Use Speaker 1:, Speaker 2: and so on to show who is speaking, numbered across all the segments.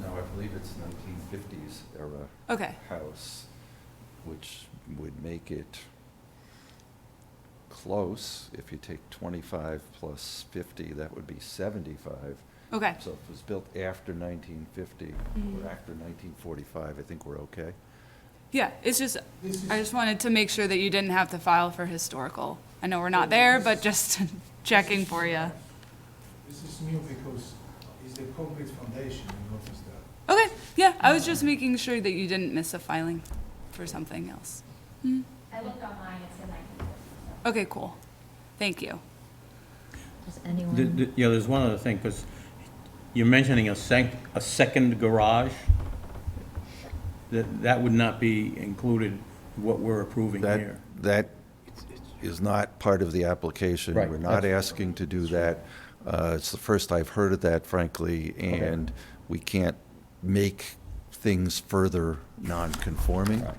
Speaker 1: No, I believe it's nineteen fifties era
Speaker 2: Okay,
Speaker 1: house, which would make it close. If you take twenty-five plus fifty, that would be seventy-five.
Speaker 2: okay,
Speaker 1: So if it was built after nineteen fifty
Speaker 2: Mhm.
Speaker 1: or after nineteen forty-five, I think we're okay.
Speaker 2: yeah, it's just, I just wanted to make sure that you didn't have to file for historical. I know we're not there, but just checking for you.
Speaker 3: This is new because it's a concrete foundation, you notice that.
Speaker 2: Okay, yeah, I was just making sure that you didn't miss a filing for something else. Hmm,
Speaker 4: I looked online, it said nineteen fifty, so.
Speaker 2: Okay, cool, thank you.
Speaker 5: Does
Speaker 6: The-
Speaker 5: anyone,
Speaker 6: the- Yeah, there's one other thing, because you're mentioning a sec, a second garage. That, that would not be included, what we're approving
Speaker 1: That,
Speaker 6: here.
Speaker 1: that is not part of the application.
Speaker 6: Right,
Speaker 1: We're not
Speaker 6: that's-
Speaker 1: asking to do that. Uh, It's the first I've heard of that, frankly,
Speaker 6: Okay.
Speaker 1: and we can't make things further non-conforming.
Speaker 6: Right.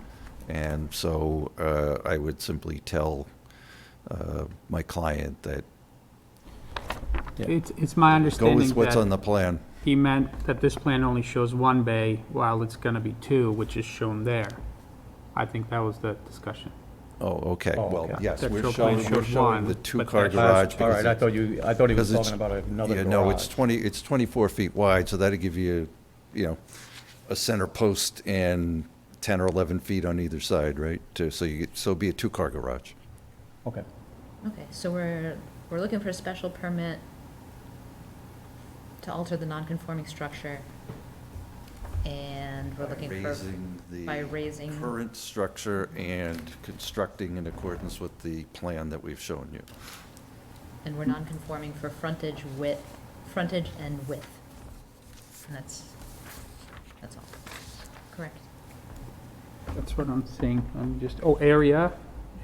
Speaker 1: And so uh, I would simply tell uh, my client that,
Speaker 7: It's, it's my
Speaker 1: go
Speaker 7: understanding
Speaker 1: with what's on
Speaker 7: that
Speaker 1: the plan.
Speaker 7: he meant that this plan only shows one bay, while it's gonna be two, which is shown there. I think that was the discussion.
Speaker 1: Oh, okay,
Speaker 6: Oh,
Speaker 1: well,
Speaker 6: okay.
Speaker 1: yes,
Speaker 7: That
Speaker 1: we're
Speaker 7: shows plan
Speaker 1: showing, we're
Speaker 7: shows
Speaker 1: showing
Speaker 7: one,
Speaker 1: the
Speaker 7: but
Speaker 1: two-car
Speaker 7: that-
Speaker 1: garage.
Speaker 6: All right,
Speaker 1: because
Speaker 6: I thought you, I thought he was
Speaker 1: because it's-
Speaker 6: talking about another
Speaker 1: Yeah,
Speaker 6: garage.
Speaker 1: no, it's 20, it's 24 feet wide, so that'd give you, you know, a center post and 10 or 11 feet on either side, right? To- So you, get- so it'd be a two-car garage.
Speaker 6: Okay.
Speaker 5: okay, so we're, we're looking for a special permit to alter the non-conforming structure, and we're looking for. by raising-
Speaker 1: Current structure and constructing in accordance with the plan that we've shown you.
Speaker 5: And we're non-conforming for frontage width, frontage and width. And that's, that's all. Correct.
Speaker 7: That's what I'm seeing, I'm just, oh, area,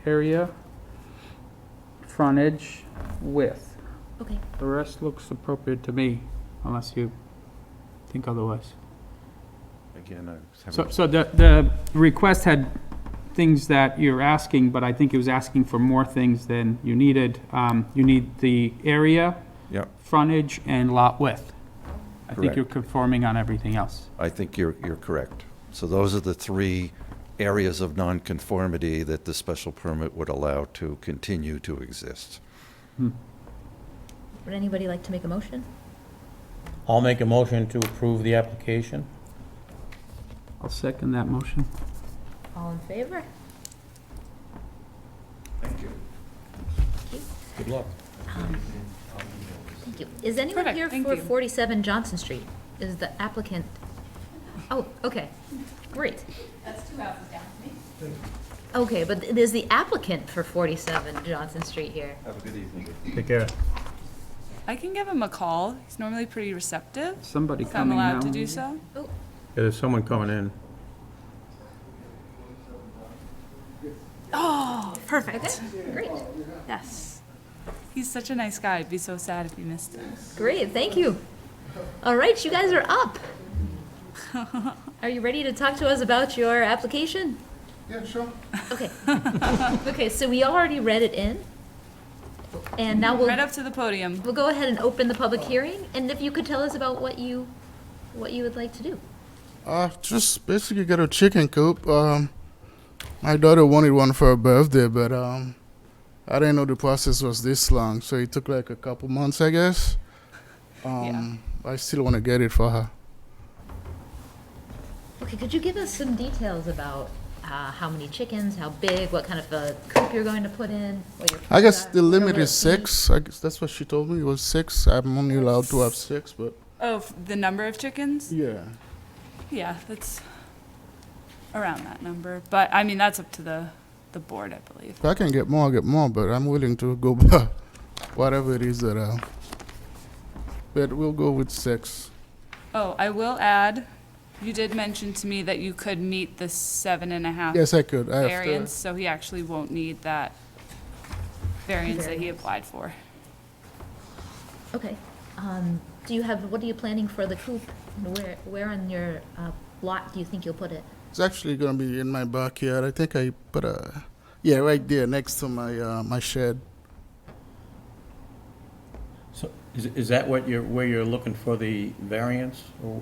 Speaker 7: area, frontage, width.
Speaker 5: Okay.
Speaker 7: The rest looks appropriate to me, unless you think otherwise.
Speaker 1: Again, I
Speaker 7: So,
Speaker 1: haven't,
Speaker 7: so the, the request had things that you're asking, but I think it was asking for more things than you needed. Um, you need the area,
Speaker 1: yeah,
Speaker 7: frontage, and lot width. I think
Speaker 1: Correct.
Speaker 7: you're conforming on everything else.
Speaker 1: I think you're, you're correct. So those are the three areas of nonconformity that the special permit would allow to continue to exist.
Speaker 5: Would anybody like to make a motion?
Speaker 6: I'll make a motion to approve the application.
Speaker 7: I'll second that motion.
Speaker 5: All in favor?
Speaker 1: Thank you.
Speaker 6: Good luck.
Speaker 5: Thank you. Is anyone
Speaker 2: Perfect,
Speaker 5: here
Speaker 2: thank
Speaker 5: for
Speaker 2: you.
Speaker 5: 47 Johnson Street? Is the applicant? Oh, okay, great.
Speaker 4: That's two houses down from me.
Speaker 5: Okay, but th- there's the applicant for 47 Johnson Street here.
Speaker 1: Have a good evening.
Speaker 6: Take care.
Speaker 2: I can give him a call, he's normally pretty receptive,
Speaker 7: Somebody
Speaker 2: if I'm
Speaker 7: coming now.
Speaker 2: allowed to do so.
Speaker 6: There's someone coming in.
Speaker 2: Oh, perfect,
Speaker 5: Great,
Speaker 2: yes. He's such a nice guy, I'd be so sad if he missed it.
Speaker 5: great, thank you. All right, you guys are up. Are you ready to talk to us about your application?
Speaker 3: Yeah, sure.
Speaker 5: Okay. Okay, so we already read it in. And now
Speaker 2: Right
Speaker 5: we'll,
Speaker 2: up to the podium.
Speaker 5: we'll go ahead and open the public hearing, and if you could tell us about what you, what you would like to do.
Speaker 8: Uh, just basically got a chicken coop. Um, my daughter wanted one for her birthday, but um, I didn't know the process was this long, so it took like a couple months, I guess. Um, I still want to get it for her.
Speaker 5: Okay, could you give us some details about uh, how many chickens, how big, what kind of a coop you're going to put in? what your
Speaker 8: I guess
Speaker 5: plans are,
Speaker 8: the
Speaker 5: what
Speaker 8: limit
Speaker 5: will
Speaker 8: is
Speaker 5: it be?
Speaker 8: six. I guess that's what she told me. It was six. I'm only allowed to have six, but
Speaker 2: Oh, f- the number of chickens?
Speaker 8: yeah.
Speaker 2: Yeah, that's around that number, but I mean, that's up to the, the board, I believe.
Speaker 8: If I can get more, I'll get more, but I'm willing to go by whatever it is that I. But we'll go with six.
Speaker 2: Oh, I will add, you did mention to me that you could meet the seven and a half
Speaker 8: Yes, I could. I have to.
Speaker 2: variance, so he actually won't need that variance that he applied for.
Speaker 5: Okay. Um, do you have, what are you planning for the coop? And Where, where on your uh, lot do you think you'll put it?
Speaker 8: It's actually gonna be in my backyard. I think I put a yeah right there next to my uh, my shed.
Speaker 6: So, is, is that what you're, where you're looking for the variance? or-